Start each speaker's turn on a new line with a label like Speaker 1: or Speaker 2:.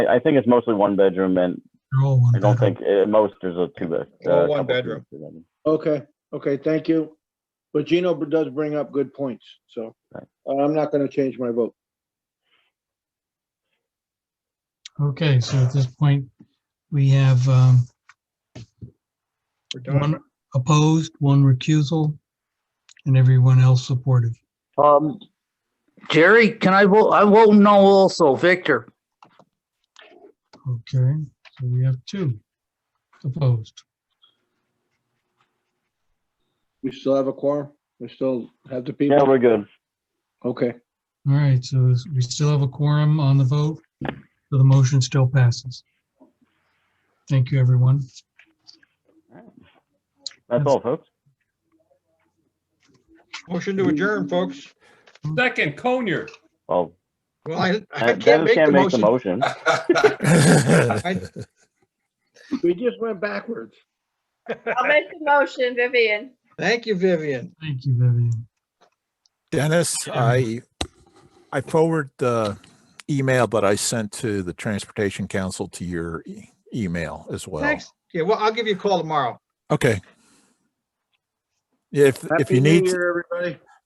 Speaker 1: I I think it's mostly one bedroom and
Speaker 2: They're all one
Speaker 1: I don't
Speaker 2: bedroom.
Speaker 1: think, at most, there's a two bed.
Speaker 3: All
Speaker 1: uh,
Speaker 3: one
Speaker 1: couple
Speaker 3: bedroom.
Speaker 1: two bedroom.
Speaker 4: Okay, okay, thank you. But Gino b- does bring up good points, so
Speaker 1: Right.
Speaker 4: uh, I'm not gonna change my vote.
Speaker 2: Okay, so at this point, we have um,
Speaker 3: We're done.
Speaker 2: one opposed, one recusal, and everyone else supportive.
Speaker 5: Um, Jerry, can I vote? I vote no also. Victor,
Speaker 2: Okay, so we have two opposed.
Speaker 4: We still have a quorum? We still have the
Speaker 1: Yeah,
Speaker 4: people?
Speaker 1: we're good.
Speaker 4: Okay,
Speaker 2: All right, so we still have a quorum on the vote, so the motion still passes. Thank you, everyone.
Speaker 1: That's all, folks.
Speaker 3: Motion to adjourn, folks.
Speaker 6: Second, Conyer.
Speaker 1: Well,
Speaker 3: Well, I, I can't
Speaker 1: Dennis
Speaker 3: make the
Speaker 1: can't make the
Speaker 3: motion.
Speaker 1: motion.
Speaker 3: I-
Speaker 4: we just went backwards.
Speaker 7: I'll make the motion, Vivian.
Speaker 3: Thank you, Vivian.
Speaker 2: Thank you, Vivian.
Speaker 8: Dennis, I, I forward the email that I sent to the Transportation Council to your e- email as well.
Speaker 3: Thanks. Yeah, well, I'll give you a call tomorrow.
Speaker 8: Okay. If, if
Speaker 4: Happy
Speaker 8: you
Speaker 4: New
Speaker 8: need,
Speaker 4: Year, everybody.